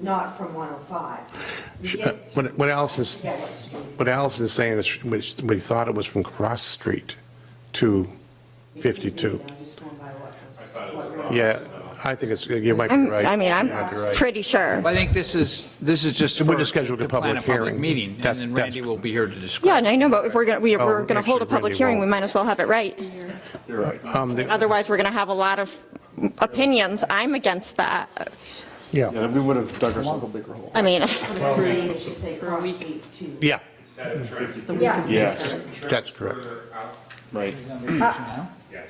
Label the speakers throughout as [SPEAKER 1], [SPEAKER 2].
[SPEAKER 1] not from 105. You
[SPEAKER 2] She-
[SPEAKER 1] get
[SPEAKER 2] uh,
[SPEAKER 1] it
[SPEAKER 2] What what Allison's,
[SPEAKER 1] to Gallup Street.
[SPEAKER 2] what Allison's saying is, which we thought it was from Cross Street to
[SPEAKER 1] You can read
[SPEAKER 2] 52.
[SPEAKER 1] it, I'm just going by what was- what road.
[SPEAKER 2] Yeah, I think it's, you might be
[SPEAKER 3] I'm-
[SPEAKER 2] right.
[SPEAKER 3] I mean,
[SPEAKER 2] You might be
[SPEAKER 3] I'm
[SPEAKER 2] right.
[SPEAKER 3] pretty sure.
[SPEAKER 4] I think this is, this is just
[SPEAKER 2] So we're
[SPEAKER 4] for-
[SPEAKER 2] just scheduling a
[SPEAKER 4] to plan
[SPEAKER 2] public hearing.
[SPEAKER 4] meeting, and
[SPEAKER 2] That's-
[SPEAKER 4] then
[SPEAKER 2] that's-
[SPEAKER 4] Randy will be here to describe.
[SPEAKER 3] Yeah, and I know, but if we're going to,
[SPEAKER 2] Oh,
[SPEAKER 3] we're going to hold a
[SPEAKER 2] actually,
[SPEAKER 3] public
[SPEAKER 2] Brandy
[SPEAKER 3] hearing, we
[SPEAKER 2] won't.
[SPEAKER 3] might as well have it right.
[SPEAKER 2] Um, the-
[SPEAKER 3] Otherwise, we're going to have a lot of opinions. I'm against that.
[SPEAKER 2] Yeah,
[SPEAKER 5] Yeah, we would have dug ourselves a bigger hole.
[SPEAKER 3] I mean,
[SPEAKER 1] Three, six, eight, cross street, two.
[SPEAKER 2] yeah,
[SPEAKER 6] Instead of trying to.
[SPEAKER 5] Yes,
[SPEAKER 2] that's correct.
[SPEAKER 5] right.
[SPEAKER 6] Yes.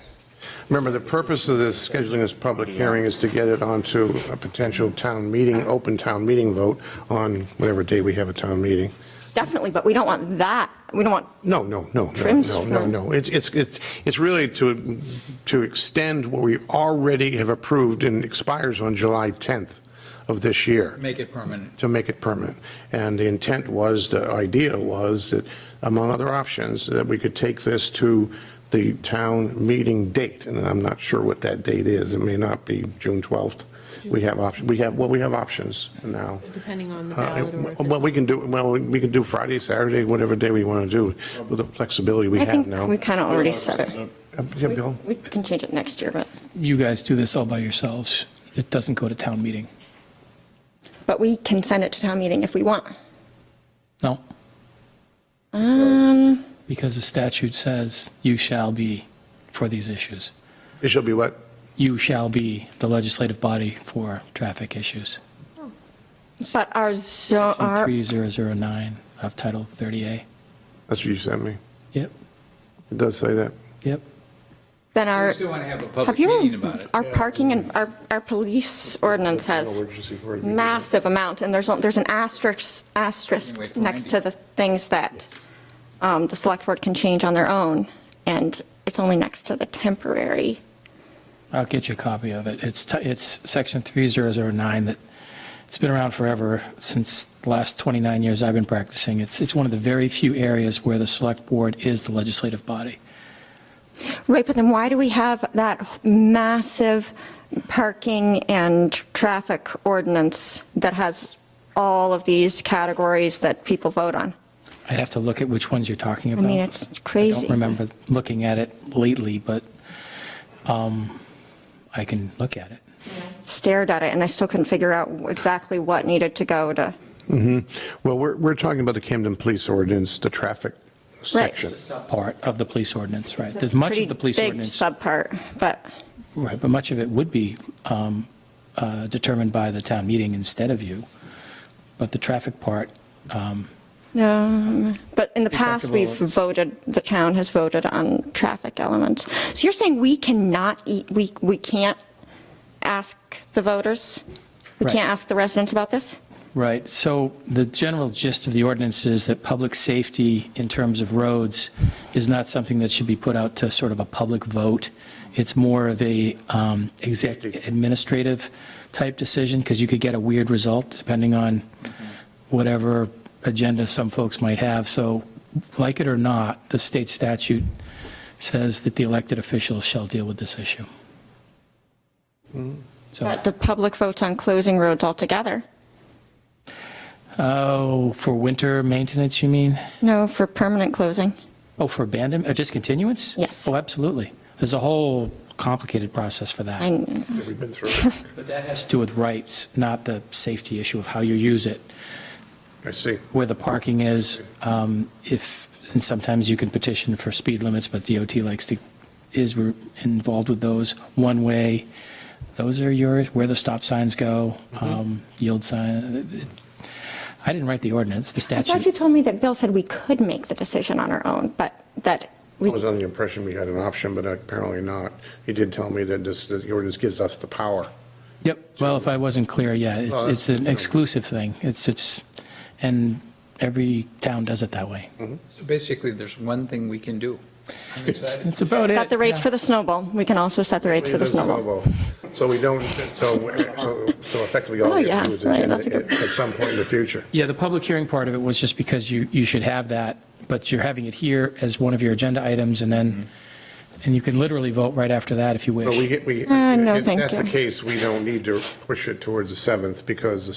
[SPEAKER 2] Remember, the purpose of this, scheduling this public hearing is to get it onto a potential town meeting, open town meeting vote on whatever day we have a town meeting.
[SPEAKER 3] definitely, but we don't want that. We don't want,
[SPEAKER 2] No, no, no, no,
[SPEAKER 3] Trim
[SPEAKER 2] no, no,
[SPEAKER 3] strip.
[SPEAKER 2] no. It's, it's, it's, it's really to, to extend what we already have approved and expires on July 10th of this year,
[SPEAKER 4] Make it permanent.
[SPEAKER 2] to make it permanent. And the intent was, the idea was that, among other options, that we could take this to the town meeting date, and I'm not sure what that date is. It may not be June 12th. We have options, we have, well, we have options now.
[SPEAKER 7] Depending on the
[SPEAKER 2] Uh,
[SPEAKER 7] ballot or if
[SPEAKER 2] Well, we can do, well, we can do Friday, Saturday, whatever day we want to do, with the flexibility we
[SPEAKER 3] I
[SPEAKER 2] have
[SPEAKER 3] think
[SPEAKER 2] now.
[SPEAKER 3] we kind of already said it.
[SPEAKER 2] Uh, Yeah, Bill?
[SPEAKER 3] We can change it next year, but,
[SPEAKER 8] you guys do this all by yourselves. It doesn't go to town meeting.
[SPEAKER 3] but we can send it to town meeting if we want.
[SPEAKER 8] No,
[SPEAKER 3] Um,
[SPEAKER 8] because the statute says you shall be for these issues.
[SPEAKER 2] It shall be what?
[SPEAKER 8] You shall be the legislative body for traffic issues.
[SPEAKER 3] but our zone,
[SPEAKER 8] Section
[SPEAKER 3] our,
[SPEAKER 8] 3009 of Title 30A.
[SPEAKER 2] That's what you sent me.
[SPEAKER 8] Yep,
[SPEAKER 2] It does say that.
[SPEAKER 8] yep.
[SPEAKER 3] then
[SPEAKER 4] We
[SPEAKER 3] our,
[SPEAKER 4] still want to have a
[SPEAKER 3] have
[SPEAKER 4] public meeting
[SPEAKER 3] you,
[SPEAKER 4] about it.
[SPEAKER 3] our parking and our, our police ordinance has
[SPEAKER 2] Emergency for it.
[SPEAKER 3] massive amount, and there's, there's an asterisk, asterisk
[SPEAKER 4] Wait for
[SPEAKER 3] next
[SPEAKER 4] Andy.
[SPEAKER 3] to the things that um, the select board can change on their own, and it's only next to the temporary.
[SPEAKER 8] I'll get you a copy of it. It's, ti- it's section 3009 that, it's been around forever, since the last 29 years I've been practicing. It's, it's one of the very few areas where the select board is the legislative body.
[SPEAKER 3] Right, but then why do we have that massive parking and traffic ordinance that has all of these categories that people vote on?
[SPEAKER 8] I'd have to look at which ones you're talking
[SPEAKER 3] I
[SPEAKER 8] about.
[SPEAKER 3] mean, it's
[SPEAKER 8] I
[SPEAKER 3] crazy.
[SPEAKER 8] don't remember looking at it lately, but um, I can look at it.
[SPEAKER 3] Stared at it, and I still couldn't figure out exactly what needed to go to,
[SPEAKER 2] Mm-hmm. Well, we're, we're talking about the Camden Police Ordinance, the traffic section.
[SPEAKER 8] Part of the police ordinance, right? There's much
[SPEAKER 3] pretty
[SPEAKER 8] of the police
[SPEAKER 3] big
[SPEAKER 8] ordinance,
[SPEAKER 3] subpart, but.
[SPEAKER 8] right, but much of it would be um, uh, determined by the town meeting instead of you. But the traffic part, um,
[SPEAKER 3] No, but in the
[SPEAKER 8] We talked
[SPEAKER 3] past, we've
[SPEAKER 8] about-
[SPEAKER 3] voted, the town has voted on traffic elements. So you're saying we cannot, e- we, we can't ask the voters? We
[SPEAKER 8] Right.
[SPEAKER 3] can't ask the residents about this?
[SPEAKER 8] Right. So the general gist of the ordinance is that public safety in terms of roads is not something that should be put out to sort of a public vote. It's more of a um, exec- administrative type decision because you could get a weird result depending on whatever agenda some folks might have. So like it or not, the state statute says that the elected officials shall deal with this issue. So.
[SPEAKER 3] But the public votes on closing roads altogether?
[SPEAKER 8] Oh, for winter maintenance, you mean?
[SPEAKER 3] No, for permanent closing?
[SPEAKER 8] Oh, for abandonment, or discontinuance?
[SPEAKER 3] Yes.
[SPEAKER 8] Oh, absolutely. There's a whole complicated process for that.
[SPEAKER 3] I,
[SPEAKER 2] We've been through it.
[SPEAKER 8] But that has to do with rights, not the safety issue of how you use it,
[SPEAKER 2] I see.
[SPEAKER 8] where the parking is. um, If, and sometimes you can petition for speed limits, but DOT likes to, is re- involved with those. One way, those are yours, where the stop signs go,
[SPEAKER 3] Mm-hmm.
[SPEAKER 8] um, yield sign. I didn't write the ordinance, the
[SPEAKER 3] I
[SPEAKER 8] statute.
[SPEAKER 3] thought you told me that Bill said we could make the decision on our own, but that
[SPEAKER 2] I
[SPEAKER 3] we,
[SPEAKER 2] was under the impression we had an option, but apparently not. He did tell me that this, that the ordinance gives us the power.
[SPEAKER 8] Yep, well, if I wasn't clear, yeah, it's,
[SPEAKER 2] that's-
[SPEAKER 8] it's an exclusive thing. It's, it's, and every town does it that way.
[SPEAKER 4] So basically, there's one thing we can do. I'm excited.
[SPEAKER 8] That's about it.
[SPEAKER 3] set the rates
[SPEAKER 8] yeah.
[SPEAKER 3] for the snowball. We can also set the rates for the snowball.
[SPEAKER 2] So we don't, so, so so effectively
[SPEAKER 3] Oh,
[SPEAKER 2] all we
[SPEAKER 3] yeah,
[SPEAKER 2] have to do is
[SPEAKER 3] right,
[SPEAKER 2] agenda
[SPEAKER 3] that's a good-
[SPEAKER 2] it at some point in the future.
[SPEAKER 8] Yeah, the public hearing part of it was just because you, you should have that, but you're having it here as one of your agenda items, and then, and you can literally vote right after that if you wish.
[SPEAKER 2] Mm-hmm. But we, get we.
[SPEAKER 3] Uh, no,
[SPEAKER 2] if
[SPEAKER 3] thank
[SPEAKER 2] That's the
[SPEAKER 3] you.
[SPEAKER 2] case, we don't need to push it towards the 7th because the